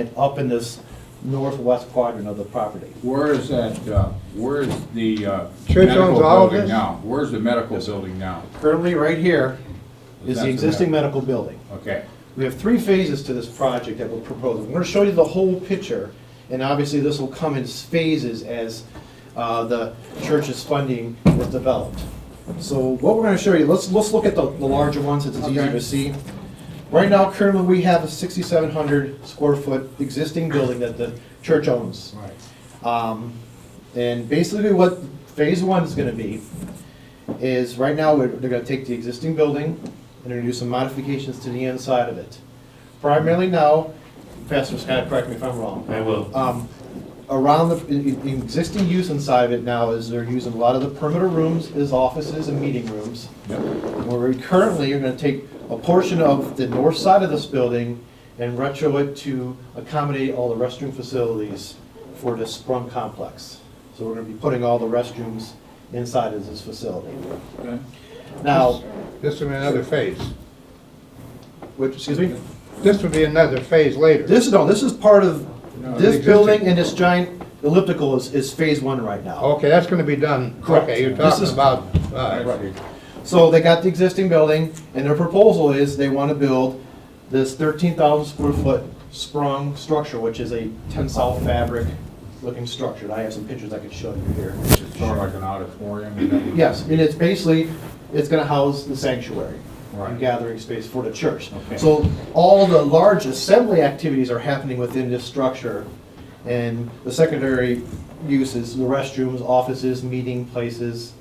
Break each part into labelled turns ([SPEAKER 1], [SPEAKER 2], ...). [SPEAKER 1] and up in this northwest quadrant of the property.
[SPEAKER 2] Where is that, uh, where is the uh,
[SPEAKER 3] Church owns
[SPEAKER 2] medical
[SPEAKER 3] all of
[SPEAKER 2] building
[SPEAKER 3] this?
[SPEAKER 2] now? Where's the medical building now?
[SPEAKER 3] Currently, right here.
[SPEAKER 1] Is
[SPEAKER 2] That's
[SPEAKER 1] the existing
[SPEAKER 2] med-
[SPEAKER 1] medical building.
[SPEAKER 2] Okay,
[SPEAKER 1] We have three phases to this project that we're proposing. We're gonna show you the whole picture, and obviously this will come in phases as uh, the church's funding is developed. So what we're gonna show you, let's, let's look at the, the larger one since it's easier
[SPEAKER 2] Okay.
[SPEAKER 1] to see. Right now, currently, we have a sixty-seven hundred square foot existing building that the church owns.
[SPEAKER 2] right.
[SPEAKER 1] Um, And basically what phase one is gonna be is right now, we're- they're gonna take the existing building and they're gonna do some modifications to the inside of it. Primarily now, Pastor Scott, correct me if I'm wrong.
[SPEAKER 4] I will.
[SPEAKER 1] Um, Around the, in- in- in existing use inside of it now is they're using a lot of the perimeter rooms as offices and meeting rooms.
[SPEAKER 2] Yep.
[SPEAKER 1] Where we currently are gonna take a portion of the north side of this building and retro it to accommodate all the restroom facilities for this sprung complex. So we're gonna be putting all the restrooms inside of this facility.
[SPEAKER 2] Okay.
[SPEAKER 1] Now,
[SPEAKER 3] This would be another phase.
[SPEAKER 1] which, excuse me,
[SPEAKER 3] This would be another phase later.
[SPEAKER 1] this, no, this is part of,
[SPEAKER 3] No, the
[SPEAKER 1] this
[SPEAKER 3] existing-
[SPEAKER 1] building and this giant elliptical is, is phase one right now.
[SPEAKER 3] Okay, that's gonna be done.
[SPEAKER 1] Correct.
[SPEAKER 3] Okay, you're
[SPEAKER 1] This
[SPEAKER 3] talking
[SPEAKER 1] is-
[SPEAKER 3] about,
[SPEAKER 2] I
[SPEAKER 3] uh,
[SPEAKER 2] see.
[SPEAKER 1] So they got the existing building, and their proposal is they want to build this thirteen thousand square foot sprung structure, which is a tensile fabric looking structure. And I have some pictures I could show you here.
[SPEAKER 2] It's sort of like an auditorium. is that-
[SPEAKER 1] Yes, and it's basically, it's gonna house the sanctuary.
[SPEAKER 2] Right.
[SPEAKER 1] and Gathering space for the church.
[SPEAKER 2] Okay.
[SPEAKER 1] So all the large assembly activities are happening within this structure. And the secondary uses, the restrooms, offices, meeting places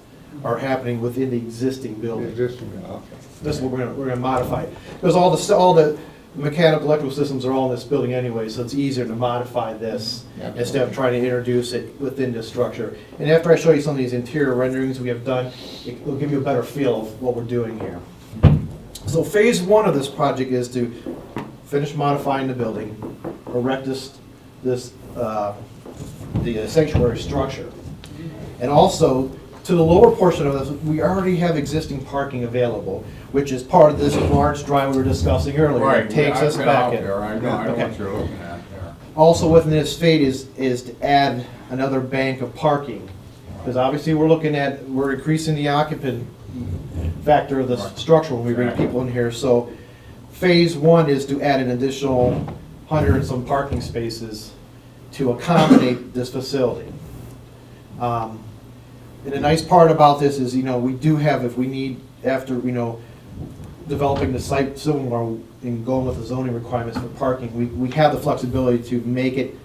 [SPEAKER 1] are happening within the existing
[SPEAKER 3] the
[SPEAKER 1] building.
[SPEAKER 3] existing, okay.
[SPEAKER 1] This is what we're gonna, we're gonna modify. Because all the, all the mechanical, electrical systems are all in this building anyway, so it's easier to modify this
[SPEAKER 3] Yeah.
[SPEAKER 1] instead of trying to introduce it within this structure. And after I show you some of these interior renderings we have done, it will give you a better feel of what we're doing here. So phase one of this project is to finish modifying the building, erect this, this, uh, the sanctuary structure. And also, to the lower portion of this, we already have existing parking available, which is part of this large drive we were discussing earlier.
[SPEAKER 2] Right.
[SPEAKER 1] It Takes us back
[SPEAKER 2] I've been out there,
[SPEAKER 1] in.
[SPEAKER 2] I know, I know
[SPEAKER 1] Okay.
[SPEAKER 2] what you're looking at there.
[SPEAKER 1] Also within this fate is, is to add another bank of parking. Because obviously, we're looking at, we're increasing the occupant factor of the
[SPEAKER 2] Right.
[SPEAKER 1] structure when we bring
[SPEAKER 2] Exactly.
[SPEAKER 1] people in here. So phase one is to add an additional hundred and some parking spaces to accommodate this facility. Um, And the nice part about this is, you know, we do have, if we need, after, you know, developing the site civil war and going with the zoning requirements for parking, we, we have the flexibility to make it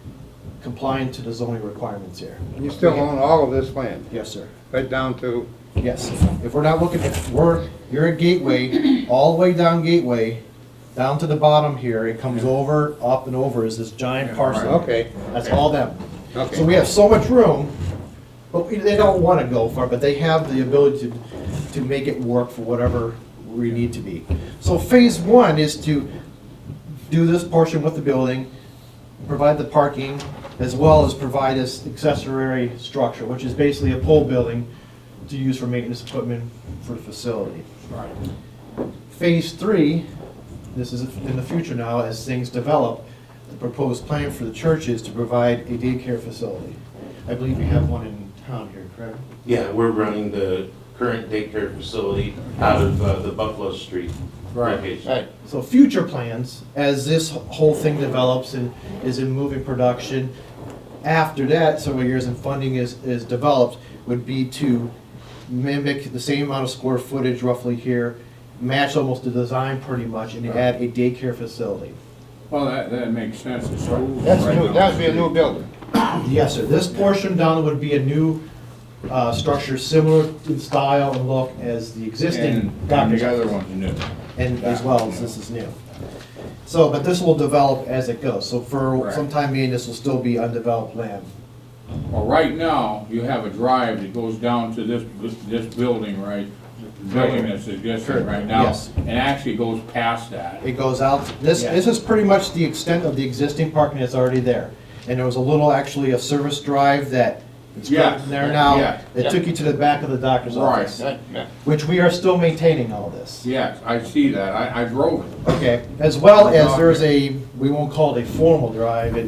[SPEAKER 1] compliant to the zoning requirements here.
[SPEAKER 3] You still own all of this land,
[SPEAKER 1] Yes, sir.
[SPEAKER 3] right down to,
[SPEAKER 1] Yes. If we're not looking, if we're, you're at Gateway, all the way down Gateway, down to the bottom here, it comes over, up and over is this giant
[SPEAKER 2] Yeah,
[SPEAKER 1] parcel.
[SPEAKER 2] right.
[SPEAKER 3] okay,
[SPEAKER 1] That's all them.
[SPEAKER 3] okay.
[SPEAKER 1] So we have so much room, but we- they don't want to go far, but they have the ability to, to make it work for whatever we need to be. So phase one is to do this portion with the building, provide the parking, as well as provide this accessory structure, which is basically a pole building to use for maintenance equipment for the facility.
[SPEAKER 2] Right.
[SPEAKER 1] Phase three, this is in the future now, as things develop, the proposed plan for the church is to provide a daycare facility. I believe you have one in town here, correct?
[SPEAKER 4] Yeah, we're running the current daycare facility out of uh, the Buffalo Street
[SPEAKER 2] Right,
[SPEAKER 4] location.
[SPEAKER 3] Right,
[SPEAKER 1] So future plans, as this whole thing develops and is in moving production, after that, several years and funding is, is developed, would be to mimic the same amount of square footage roughly here, match almost the design pretty much, and add a daycare facility.
[SPEAKER 2] Well, that, that makes sense. The school's
[SPEAKER 3] that's
[SPEAKER 2] right
[SPEAKER 3] new,
[SPEAKER 2] down
[SPEAKER 3] that
[SPEAKER 2] the
[SPEAKER 3] would be a
[SPEAKER 2] street.
[SPEAKER 3] new building.
[SPEAKER 1] Yes, sir. This portion down would be a new uh, structure similar in style and look as the existing
[SPEAKER 2] And- And
[SPEAKER 1] doctor's
[SPEAKER 2] the other
[SPEAKER 1] office.
[SPEAKER 2] one's new.
[SPEAKER 1] And as well as this is new. So, but this will develop as it goes. So for
[SPEAKER 2] Correct.
[SPEAKER 1] some time being, this will still be undeveloped land.
[SPEAKER 2] Well, right now, you have a drive that goes down to this, this building, right? The Building that's existing right now,
[SPEAKER 1] Yes.
[SPEAKER 2] and actually goes past that.
[SPEAKER 1] It goes out, this, this is pretty much the extent of the existing parking that's already there. And there was a little, actually, a service drive that It's
[SPEAKER 2] Yes.
[SPEAKER 1] current there now.
[SPEAKER 2] Yeah.
[SPEAKER 1] It took you to the back of the doctor's
[SPEAKER 2] Right.
[SPEAKER 1] office, which we are still maintaining all this.
[SPEAKER 2] Yes, I see that, I, I drove it.
[SPEAKER 1] Okay, as well as there's a, we won't call it a formal drive, it